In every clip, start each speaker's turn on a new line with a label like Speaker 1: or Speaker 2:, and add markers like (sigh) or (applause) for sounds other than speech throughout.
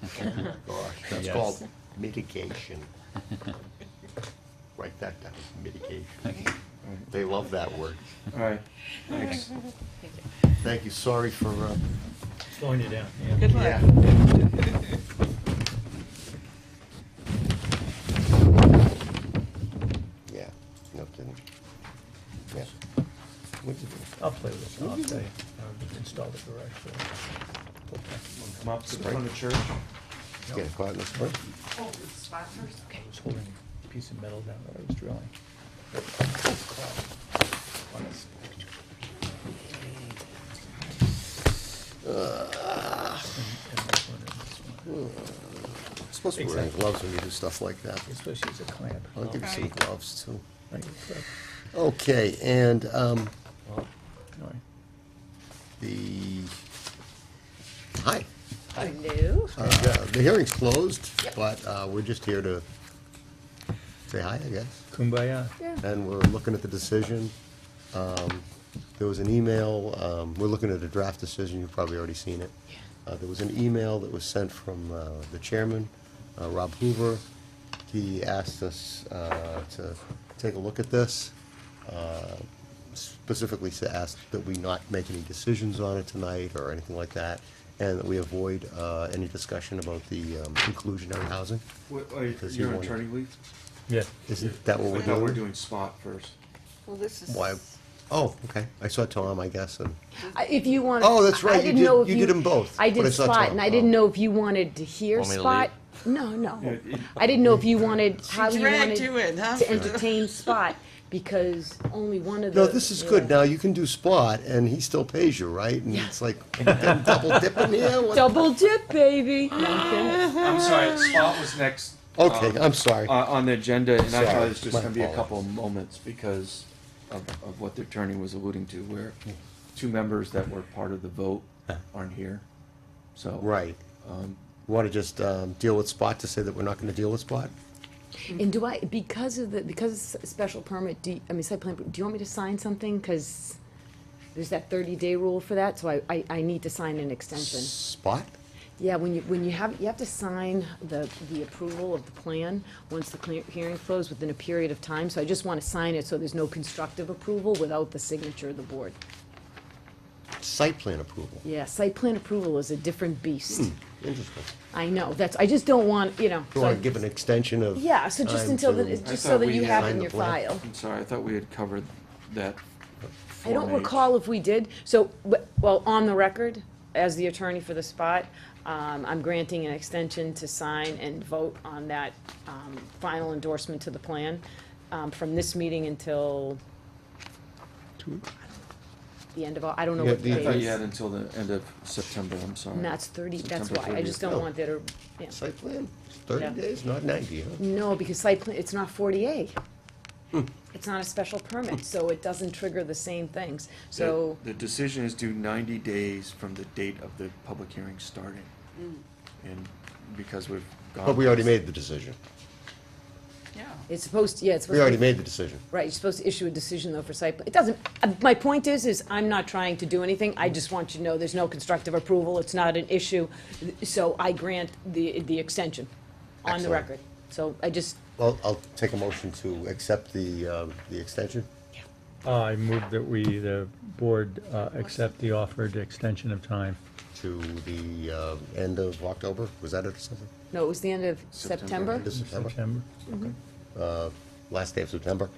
Speaker 1: (laughs) Gosh, that's
Speaker 2: Yes.
Speaker 1: called mitigation. Write that down, mitigation. (laughs) They love that word.
Speaker 3: All right, thanks.
Speaker 1: Thank you, sorry for, uh,
Speaker 4: Slowing you down, yeah.
Speaker 5: Good
Speaker 1: yeah.
Speaker 4: (laughs)
Speaker 5: luck.
Speaker 1: Yeah, no kidding. Yeah. What'd you do?
Speaker 4: I'll play with it, I'll tell you. I'll Install the garage door.
Speaker 3: Come up to the front of the church.
Speaker 1: Get a caught in the spring?
Speaker 5: Hold Oh, the spot first, okay.
Speaker 4: I was holding a piece of metal down that I was drilling. On this- And- and this one and this one.
Speaker 1: Supposed to be wearing
Speaker 4: Exactly.
Speaker 1: gloves when you do stuff like that.
Speaker 4: You're supposed to use a clamp.
Speaker 1: I'll give you some
Speaker 5: Right.
Speaker 1: gloves too.
Speaker 4: Like, uh,
Speaker 1: Okay, and, um,
Speaker 4: anyway.
Speaker 1: the, hi.
Speaker 5: Hello.
Speaker 1: Uh, The hearing's closed, but uh, we're just here to say hi, I guess.
Speaker 4: Kumbaya.
Speaker 1: And we're looking at the decision. Um, There was an email, um, we're looking at a draft decision, you've probably already seen it. Uh, There was an email that was sent from uh, the chairman, uh, Rob Hoover. He asked us uh, to take a look at this, uh, specifically to ask that we not make any decisions on it tonight or anything like that, and that we avoid uh, any discussion about the um, inclusionary housing.
Speaker 3: What, are you,
Speaker 1: Does he
Speaker 3: you're on
Speaker 1: want it?
Speaker 3: attorney leave?
Speaker 4: Yeah.
Speaker 1: Isn't that what
Speaker 3: I
Speaker 1: we're
Speaker 3: thought
Speaker 1: doing?
Speaker 3: we were doing spot first.
Speaker 5: Well, this is.
Speaker 1: Why, oh, okay, I saw Tom, I guess, and,
Speaker 6: I- If you want.
Speaker 1: Oh, that's right.
Speaker 6: I
Speaker 1: You
Speaker 6: didn't
Speaker 1: did-
Speaker 6: know if
Speaker 1: you
Speaker 6: you.
Speaker 1: did 'em both,
Speaker 6: I
Speaker 1: but I
Speaker 6: did
Speaker 1: saw
Speaker 6: Spot,
Speaker 1: Tom.
Speaker 6: and I didn't know if you wanted to hear
Speaker 7: Want me to
Speaker 6: Spot. No, no.
Speaker 3: Yeah, it-
Speaker 6: I didn't know if you wanted,
Speaker 5: She
Speaker 6: how you wanted
Speaker 5: dragged you in, huh?
Speaker 6: to entertain Spot, because only one of the.
Speaker 1: no, this is good, now you can do spot, and he still pays you, right? And it's like, (laughs) I'm double dipping here, what?
Speaker 6: Double dip, baby. (laughs) No, I'm kidding.
Speaker 1: (gasps)
Speaker 3: I'm sorry, spot was next.
Speaker 1: Okay,
Speaker 3: um,
Speaker 1: I'm sorry,
Speaker 3: Uh, on the agenda, and I thought
Speaker 1: Sorry,
Speaker 3: it was just
Speaker 1: my
Speaker 3: gonna be a
Speaker 1: apologies.
Speaker 3: couple of moments because of, of what the attorney was alluding to, where
Speaker 1: Hmm.
Speaker 3: two members that were part of the vote aren't here, so.
Speaker 1: right. Want to just um, deal with spot to say that we're not gonna deal with spot?
Speaker 6: And do I, because of the, because it's a special permit, do, you- I mean, site plan, do you want me to sign something? Because there's that thirty-day rule for that, so I, I, I need to sign an extension.
Speaker 1: Spot?
Speaker 6: Yeah, when you, when you have, you have to sign the, the approval of the plan, once the clear, hearing closed, within a period of time, so I just wanna sign it so there's no constructive approval without the signature of the board.
Speaker 1: Site plan approval,
Speaker 6: Yeah, site plan approval is a different beast.
Speaker 1: interesting.
Speaker 6: I know, that's, I just don't want, you know.
Speaker 1: You
Speaker 6: so I-
Speaker 1: want to give an extension of?
Speaker 6: Yeah, so just
Speaker 1: time
Speaker 6: until,
Speaker 1: to-
Speaker 6: the- it's
Speaker 3: I
Speaker 6: just
Speaker 3: thought
Speaker 6: so that
Speaker 3: we
Speaker 6: you have
Speaker 1: signed
Speaker 6: in
Speaker 1: the
Speaker 6: your
Speaker 1: plan.
Speaker 6: file.
Speaker 3: I'm sorry, I thought we had covered that.
Speaker 6: I don't
Speaker 3: Form H.
Speaker 6: recall if we did, so, but- well, on the record, as the attorney for the spot, um, I'm granting an extension to sign and vote on that, um, final endorsement to the plan, um, from this meeting until the end of, Au- I don't know
Speaker 1: Yeah,
Speaker 6: what the
Speaker 1: the-
Speaker 3: I
Speaker 6: date
Speaker 3: thought you had
Speaker 6: is.
Speaker 3: until the end of September, I'm sorry.
Speaker 6: And that's thirty, that's
Speaker 3: September
Speaker 6: why, I
Speaker 3: 30th.
Speaker 6: just don't want that, or, yeah.
Speaker 1: Site plan,
Speaker 6: Yeah.
Speaker 1: thirty days, not ninety, huh?
Speaker 6: No, because site plan, it's not forty A.
Speaker 1: Hmm.
Speaker 6: It's not a special permit, so it doesn't trigger the same things,
Speaker 3: The-
Speaker 6: so.
Speaker 3: The decision is due ninety days from the date of the public hearing starting. And because we've gone.
Speaker 1: But we already made the decision,
Speaker 5: Yeah.
Speaker 6: It's supposed, to. yeah, it's supposed to.
Speaker 1: we already made the decision.
Speaker 6: Right, you're supposed to issue a decision though for site, plan. it doesn't, uh, my point is, is I'm not trying to do anything, I just want you to know there's no constructive approval, it's not an issue, so I grant the, the extension on the
Speaker 1: Excellent.
Speaker 6: record. So I just,
Speaker 1: Well, I'll take a motion to accept the, um, the extension.
Speaker 2: I move that we, the board, uh, accept the offered extension of time.
Speaker 1: to the uh, end of October, was that it, September?
Speaker 6: no, it was the end of
Speaker 3: September.
Speaker 6: September?
Speaker 1: End of September,
Speaker 2: September.
Speaker 1: last day of September.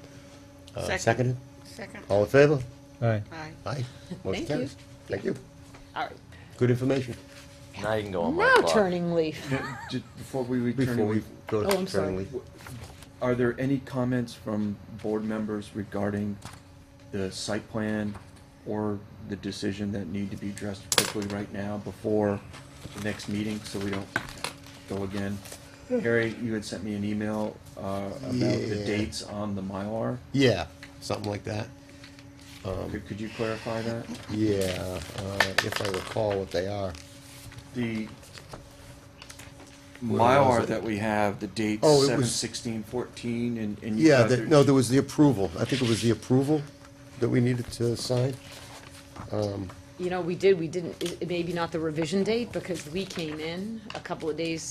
Speaker 1: Uh,
Speaker 5: Second.
Speaker 1: Seconded,
Speaker 5: Second.
Speaker 1: all in favor?
Speaker 2: Aye.
Speaker 5: Aye.
Speaker 1: Oh. Aye. Motion
Speaker 6: you.
Speaker 1: carries. Thank you,
Speaker 6: All right,
Speaker 1: good information.
Speaker 7: Now you can go on my
Speaker 6: now
Speaker 7: clock.
Speaker 6: turning leaf.
Speaker 3: Yeah, (laughs) ju- Before we return,
Speaker 1: Before we
Speaker 3: to-
Speaker 1: go to.
Speaker 6: Oh, I'm sorry.
Speaker 1: turn leaf.
Speaker 3: are there any comments from board members regarding the site plan or the decision that need to be addressed quickly right now before the next meeting, so we don't go again? Harry, you had sent me an email uh, about the
Speaker 1: Yeah.
Speaker 3: dates on the Mylar.
Speaker 1: Yeah, something like that, Um,
Speaker 3: Could could you clarify that?
Speaker 1: yeah, uh, if I recall what they are.
Speaker 3: The
Speaker 1: was
Speaker 3: Mylar
Speaker 1: it?
Speaker 3: that we have, the dates
Speaker 1: Oh, it
Speaker 3: seven
Speaker 1: was-
Speaker 3: sixteen fourteen and, and. you
Speaker 1: Yeah,
Speaker 3: guys
Speaker 1: there-
Speaker 3: are-
Speaker 1: no, there was the approval, I think it was the approval that we needed to sign.
Speaker 6: You know, we did, we didn't, it- it maybe not the revision date, because we came in a couple of days